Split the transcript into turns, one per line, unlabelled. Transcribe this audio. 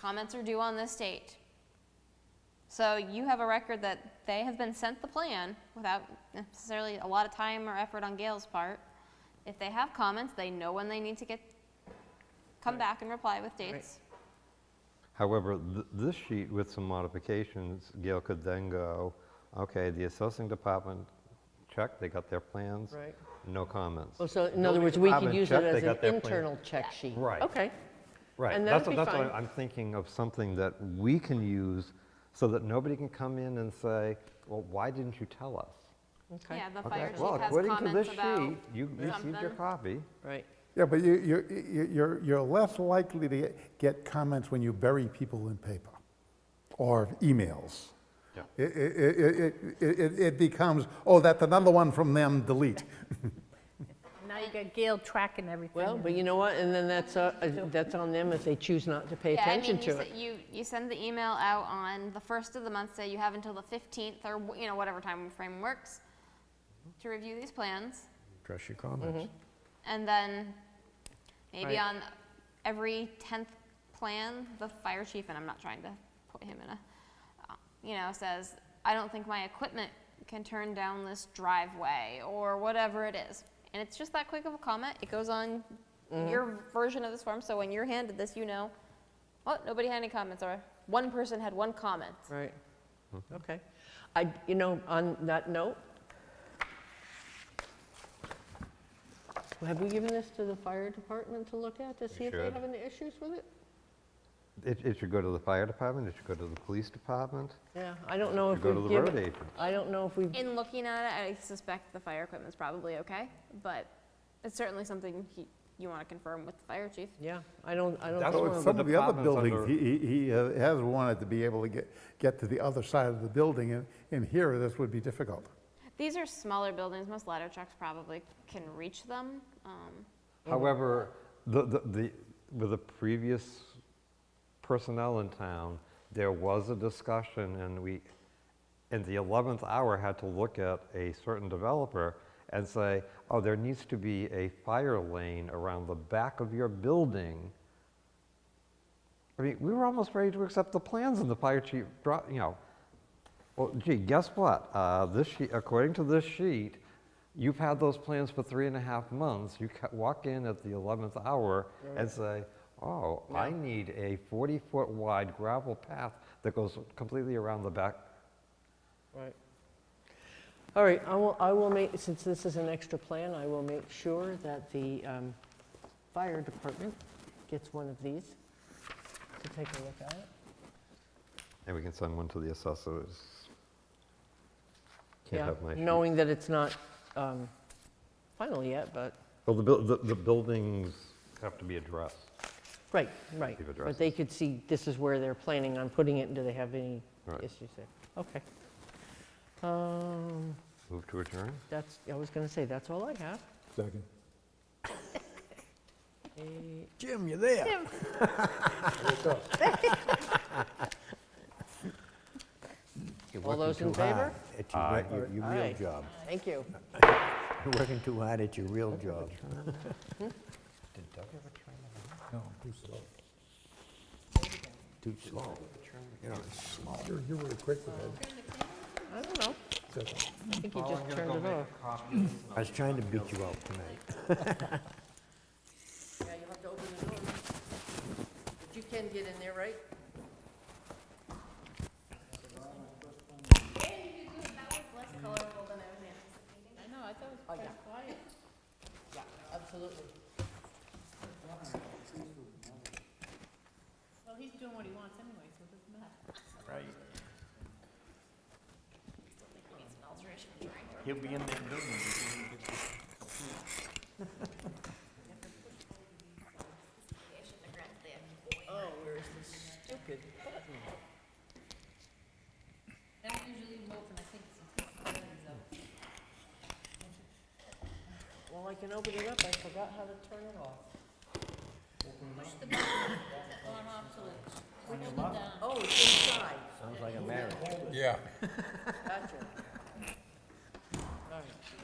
Comments are due on this date. So you have a record that they have been sent the plan without necessarily a lot of time or effort on Gail's part. If they have comments, they know when they need to get, come back and reply with dates.
However, th- this sheet with some modifications, Gail could then go, okay, the assessing department checked, they got their plans.
Right.
No comments.
Oh, so in
Building
other words, we could
department
use it
checked, they
as an
got their plans.
internal check sheet.
Right.
Okay.
Right,
and
that's,
that'd
what-
be
that's why
fine.
I'm thinking of something that we can use so that nobody can come in and say, well, why didn't you tell us?
Okay.
Yeah, the
Okay,
fire
Well,
chief has
according to this
comments about
sheet, you received your
something.
copy.
Right.
Yeah, but you, you, you- you're, you're less likely to get- get comments when you bury people in paper or emails.
Yeah.
It, it, it, it- it, it becomes, oh, that's another one from them, delete.
Now you got Gail tracking everything.
Well, but you know what, and then that's, uh, uh, that's on them if they choose not to pay
Yeah, I
attention
mean, you
to
se-
it.
You, you send the email out on the first of the month, say you have until the fifteenth, or, wh- you know, whatever time frame works, to review these plans,
Address your comments.
and then maybe
Right.
on every tenth plan, the fire chief, and I'm not trying to put him in a, uh, you know, says, I don't think my equipment can turn down this driveway, or whatever it is. And it's just that quick of a comment, it goes on
Mm-hmm.
your version of this form, so when you're handed this, you know, oh, nobody had any comments, or one person had one comment.
Right. Okay. I, you know, on that note, have we given this to the fire department to look at to see if they
should.
have any issues with it?
It, it should go to the fire department, it should go to the police department,
Yeah, I don't know
it
if
should go to
we've
the road
given,
agent.
I don't know if we've,
In looking at it, I suspect the fire equipment's probably okay, but it's certainly something he, you want to confirm with the fire chief.
yeah, I don't, I don't. think
That's what
we've-
Well,
Some
the
of the other
department's
buildings, he, he- he uh, has wanted to be able to get, get to the other side of the building, and, and here, this would be difficult.
These are smaller buildings, most ladder trucks probably can reach them. Um,
However, the, the, the, with the previous personnel in town, there was a discussion and we, in the 11th hour, had to look at a certain developer and say, oh, there needs to be a fire lane around the back of your building. I mean, we were almost ready to accept the plans and the fire chief brought, you know, well, gee, guess what? Uh, This sheet, according to this sheet, you've had those plans for three and a half months. You ca- walk in at the 11th hour and say, oh, I need a 40-foot wide gravel path that goes completely around the back.
Right. All right, I will, I will make, since this is an extra plan, I will make sure that the um, fire department gets one of these to take a look at it.
And we can send one to the assessors. Can't
Yeah,
have my sheet.
Knowing that it's not um, final yet, but,
Well, the buil- the, the buildings have to be addressed.
right, right.
Give
But they could see this is where they're planning on putting it, and do they have any
Right.
issues there? Okay. Um,
Move to adjourn?
That's, I was going to say, that's all I have.
Second.
Jim, you there?
All those in favor?
At your re- your, your
Aye.
real job.
Thank you.
You're working too hard at your real job.
Did Doug ever turn it on?
No, too slow. Too slow. You know, it's slow.
You were quick with that.
I don't know. I think you just turned it off.
I was trying to beat you out tonight.
Yeah, you'll have to open the door. But you can get in there, right? Yeah, absolutely.
Well, he's doing what he wants anyway, so it doesn't matter.
Oh, where is this stupid button?
I don't usually vote when I think it's important, so.
Well, I can open it up, I forgot how to turn it off.
Push the button on off till it switches it down.
Oh, it's inside,
Sounds like a marriage.
gotcha. All right.